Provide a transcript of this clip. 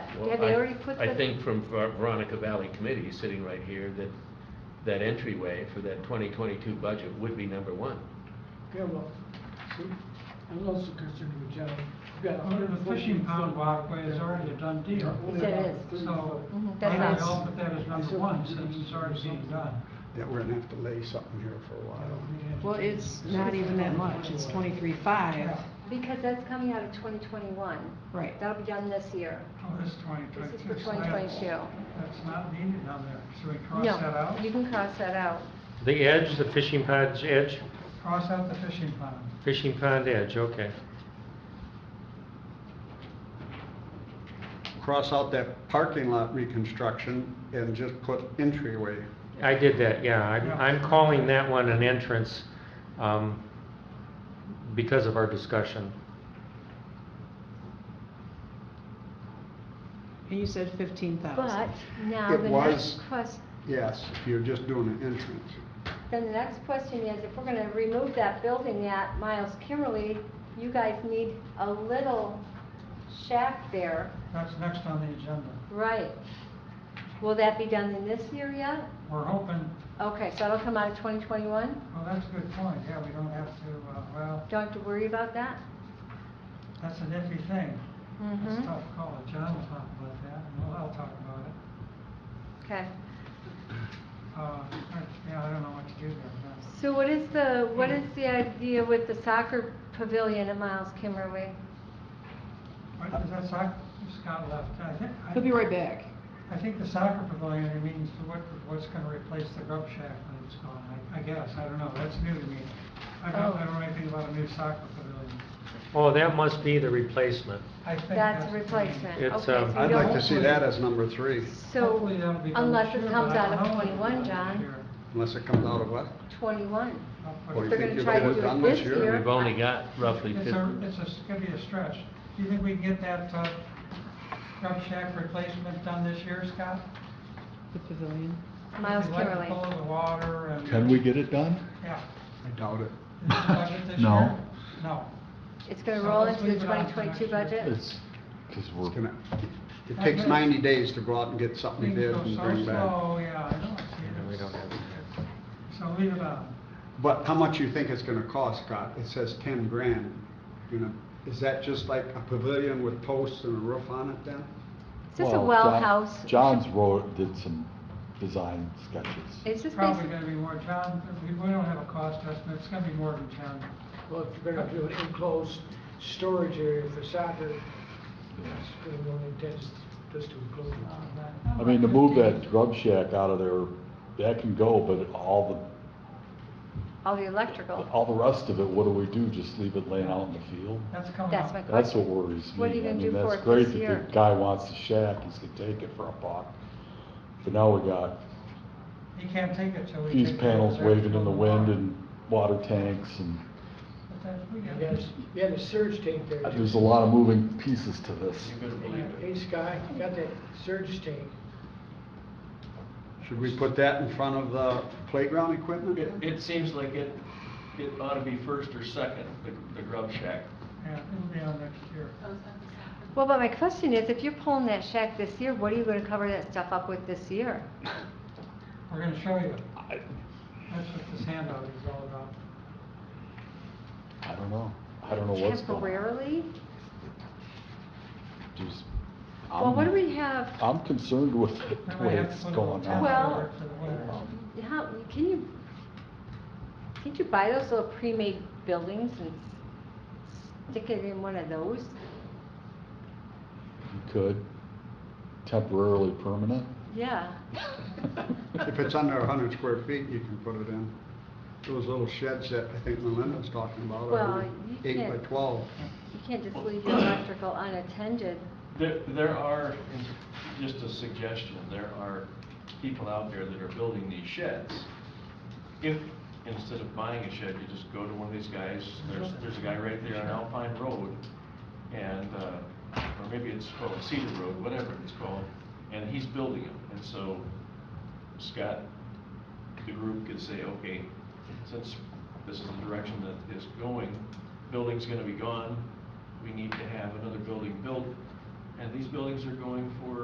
Have I- they already put I the- think from Ver- Veronica Valley Committee, sitting right here, that, that entryway for that 2022 budget would be number one. Yeah, well, see, I was also concerned with Joe. We've got a Well, hundred and the fourteen fishing pond foot- walkway is already a done deal. Yeah, Yes, only it about is. 30 So, foot. Mhm, why that's not us. all put that as number one, since it's already being done? that we're gonna have to lay something here for a while. Well, it's not even that much, it's twenty-three five. Because that's coming out of twenty twenty-one. Right. That'll be done this year. Oh, this twenty twenty-two. This is for 2022. That's not needed on there, should we cross that No, out? you can cross that out. The edge, the fishing pond's edge, Cross out the fishing pond. fishing pond edge, okay. Cross out that parking lot reconstruction and just put entryway. I did that, yeah, I'm, Yeah. I'm calling that one an entrance, um, because of our discussion. And you said fifteen But thousand. now It the was- next question, Yes, if you're just doing an entrance. then the next question is, if we're gonna remove that building at Miles Kimmerly, you guys need a little shack there. That's next on the agenda. Right. Will that be done in this year yet? We're hoping, Okay, so that'll come out of twenty twenty-one? well, that's a good point, yeah, we don't have to, uh, well, Don't have to worry about that? that's an iffy thing. That's a Mhm. tough call, John will talk about that, and we'll, I'll talk about it. Okay. Uh, yeah, I don't know what to do there, but. So what is the, what is the idea with the soccer pavilion at Miles Kimmerly? What does that soccer, Scott left, I think. I- He'll be right back. I think the soccer pavilion means what, what's gonna replace the grub shack when it's gone, I, I guess, I don't know, that's new to me. I don't, I don't know anything about a new soccer pavilion. Oh, that must be the replacement. I think That's a the- replacement. It's, Okay, um, so you I'd like don't- to see that as number three, So, Hopefully that'll be done unless this it year, comes but I out of don't know if it'll be twenty-one, done this John, year. unless it comes out of what? twenty-one. I'll put- Or you They're think gonna you'll try get to it do it done this this year? year. We've only got roughly It's 50. a, it's a, it's gonna be a stretch. Do you think we can get that, uh, grub shack replacement done this year, Scott? The pavilion. Miles With the Kimmerly. electrical, the water and. Can we get it done? Yeah. I doubt it. Is this budget this No. year? No. It's gonna So roll let's into the leave it on twenty for next twenty-two year. budget? It's, because It's we're, gonna, it takes ninety days to go out and get Things something bid go and so bring back. slow, yeah, I know, And we don't have it's- it yet. so leave it on. But how much you think it's gonna cost, Scott? It says ten grand, you know, is that just like a pavilion with posts and a roof on it then? Is this a Well, well John- house? John's wrote, did some design sketches. Is this Probably basically, gonna be more, John, we, we don't have a cost estimate, it's gonna be more than John. Well, if you're gonna do an enclosed storage area for soccer, Yes. it's gonna one intends just to enclose it. Uh-huh. I mean, to move that grub shack out of there, that can go, but all all the the, electrical? all the rest of it, what do we do? Just leave it laying out in the field? That's coming That's up. my question. That's what worries me. What are you I gonna mean, do for that's it great this that year? the Guy wants the shack, he's gonna take it for a buck. But now we got He can't take it till we. fuse take care of panels his waving in the actual wind water. and water tanks and But that's- we got- You had a- you had a surge tank there. too. there's a lot of moving pieces to this. Hey, Scott, you got that surge tank. Should we put that in front of the playground equipment? It, it seems like it, it ought to be first or second, the, the grub shack. Yeah, it'll be on next year. Well, but my question is, if you're pulling that shack this year, what are you gonna cover that stuff up with this year? We're gonna show you. That's what this handout is all about. I don't know. I don't know what's going on. Temporarily? Just- Well, I'm- what do we have? I'm concerned with We the might way have to it's put a little going tent on. Well- over it for the winter. How, can you, can't you buy those little pre-made buildings and stick it in one of those? You could temporarily permanent. Yeah. If it's under a hundred square feet, you can put it in. Those little sheds that I think Melinda was talking about, Well, are you eight by can't- twelve. You can't just leave your electrical unattended. There, there are, just a suggestion, there are people out there that are building these sheds. If, instead of buying a shed, you just go to one of these guys, there's, there's a guy right there on Alpine Road, and, uh, or maybe it's called Cedar Road, whatever it's called, and he's building them, and so Scott, the group could say, okay, since this is the direction that is going, building's gonna be gone, we need to have another building built, and these buildings are going for